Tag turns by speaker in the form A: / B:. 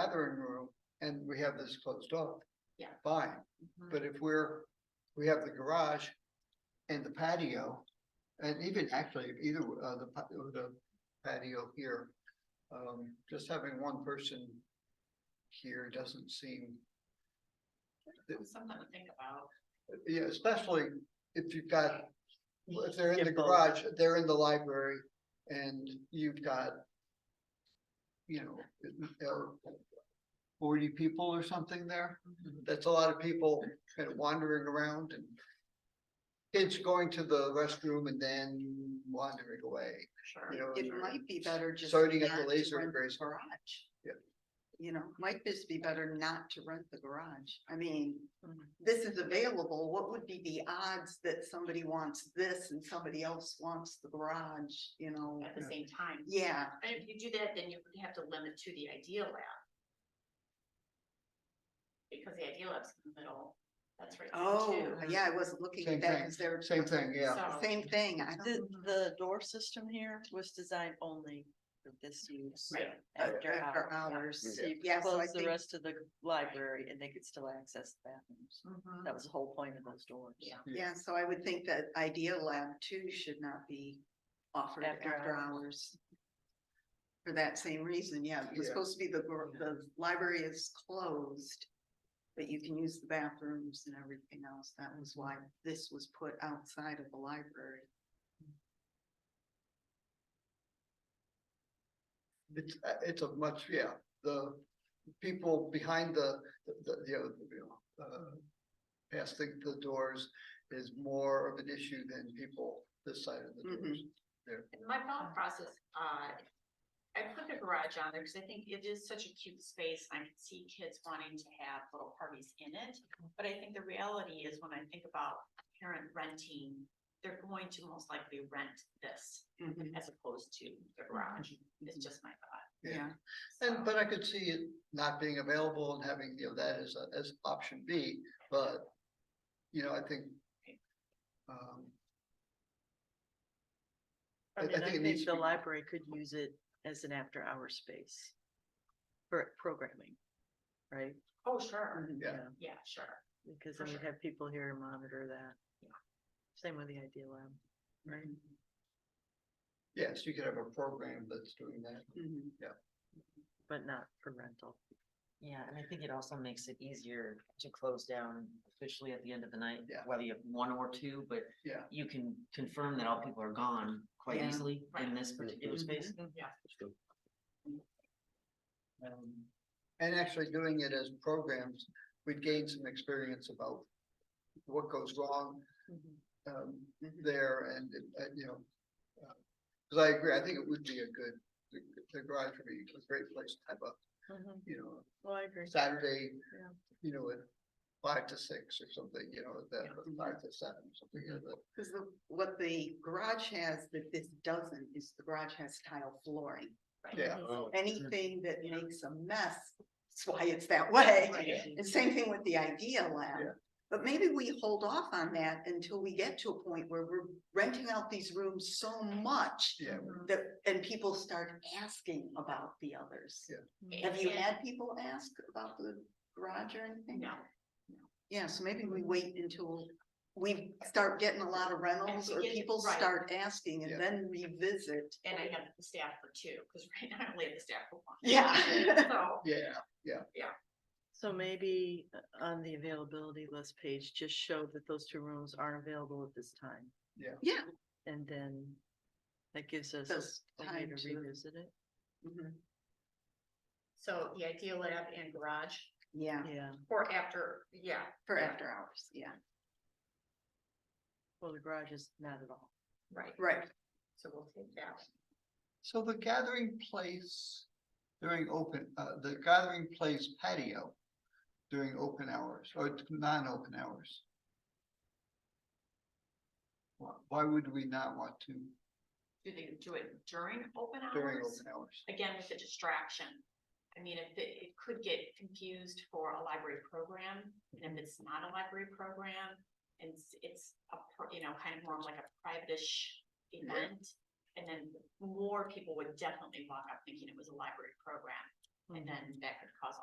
A: gathering room and we have this closed off.
B: Yeah.
A: Fine,
B: Mhm.
A: but if we're, we have the garage and the patio, and even actually either, uh, the, pa- or the patio here. Um, just having one person here doesn't seem,
B: That's Something to think about.
A: yeah, especially if you've got, if they're in the
C: Get both.
A: garage, they're in the library and you've got, you know, uh, forty people or something there.
B: mm-hmm,
D: Mm-hmm.
A: That's a lot of people kind of wandering around and kids going to the restroom and then wandering away,
B: Sure.
A: you know.
D: It
A: and
D: might be better just.
A: Starting at
D: not
A: the
D: to
A: laser
D: rent the
A: engraving.
D: Garage.
A: Yeah.
D: You know, might just be better not to rent the garage. I mean,
C: Mm-hmm.
B: Mhm.
D: this is available. What would be the odds that somebody wants this and somebody else wants the garage, you know?
B: At the same time.
D: Yeah,
B: And if you do that, then you have to limit to the ideal lab. Because the ideal lab's in the middle, that's right. there
D: oh,
B: too.
D: yeah, I wasn't looking
A: Same
D: at that
A: thing.
D: because they're.
A: Same thing, yeah.
B: So-
D: Same thing. I
C: The,
D: don't,
C: the door system here was designed only for this use
B: Right.
C: after
D: after
C: hours.
D: hours.
C: So you
D: Yeah, so I
C: close the
D: think-
C: rest of the library and they could still access the bathrooms.
B: Mhm.
C: That was the whole point of those doors.
B: Yeah.
D: Yeah, so I would think that Idea Lab too should not be offered
C: After
D: after hours. For that same reason, yeah,
A: Yeah.
D: it's supposed to be the, gar- the library is closed. But you can use the bathrooms and everything else. That was why this was put outside of the library.
A: It's, uh, it's a much, yeah, the people behind the, the, the, you know, uh, past the, the doors is more of an issue than people this side of the doors.
B: And My thought process, uh, I put the garage on there because I think it is such a cute space. and I can see kids wanting to have little parties in it. But I think the reality is when I think about a parent renting, they're going to most likely rent this as opposed to the garage. It's just my thought.
D: Yeah,
B: So-
A: And, but I could see it not being available and having, you know, that as, a- as option B, but, you know, I think. Um, I-
C: I
A: I
C: mean,
A: think
C: I
A: it needs
C: think
A: to
C: the
A: be-
C: library could use it as an after-hour space for programming, right?
B: Oh, sure.
D: Mm-hmm.
A: Yeah.
B: Yeah, sure.
C: Because
B: For
C: then we
B: sure.
C: have people here to monitor that.
B: Yeah.
C: Same with the Idea Lab. Right.
A: yes, you could have a program that's doing that.
D: Mhm.
C: But not for rental.
E: Yeah, and I think it also makes it easier to close down officially at the end of the night,
A: Yeah.
E: whether you have one or two, but
A: Yeah.
E: you can confirm that all people are gone quite
D: Yeah.
E: easily
B: Right.
E: in this particular
C: Mm-hmm.
D: Mhm.
E: space.
B: Yeah.
E: Um,
A: And actually doing it as programs, we'd gain some experience about what goes wrong um,
D: Mhm.
A: there and, uh, you know. uh, Cause I agree, I think it would be a good, the- the garage would be a great place to have a, you know,
C: Mm-hmm. Well, I agree.
A: Saturday,
C: Yeah.
A: you know, at five to six or something, you know, that,
D: Yeah.
A: five to seven, something like that.
D: Cause the, what the garage has that this doesn't is the garage has tile flooring.
B: Right.
A: Yeah.
D: anything that makes a mess, that's why it's that way.
B: Right.
D: And same thing with the idea lab.
A: Yeah.
D: But maybe we hold off on that until we get to a point where we're renting out these rooms so much
A: Yeah,
B: Mhm.
D: that, and people start asking about the others.
A: Yeah.
D: Have you
B: And-
D: had people ask about the garage or anything?
B: No.
D: Yeah, so maybe we wait until we start getting a lot of rentals
B: we
D: or
B: get-
D: people
B: right.
D: start asking
A: Yeah.
D: and then revisit.
B: And I have the staff for two, because right now I only have the staff for one.
D: Yeah.
B: So,
A: yeah,
C: So maybe uh, on the availability list page, just show that those two rooms aren't available at this time.
A: Yeah.
D: Yeah.
C: And then that gives us
D: Those
C: a way
D: time
C: to
D: to-
C: revisit it.
D: Mhm.
B: so the idea lab and garage
D: Yeah,
C: Yeah,
B: or after, yeah.
D: for
B: Yeah.
D: after hours, yeah,
C: well, the garage is not at all.
B: Right.
D: right.
B: So we'll take that.
A: so the gathering place during open, uh, the gathering place patio during open hours or non-open hours. Why, why would we not want to
B: Do they do it during open
A: during
B: hours?
A: open hours?
B: Again, with the distraction. I mean, if it, it could get confused for a library program, and if it's not a library program, and it's, it's a, pro- you know, kind of more of like a private-ish event. And then
C: Mm-hmm.
B: more people would definitely walk up thinking it was a library program, and then that could cause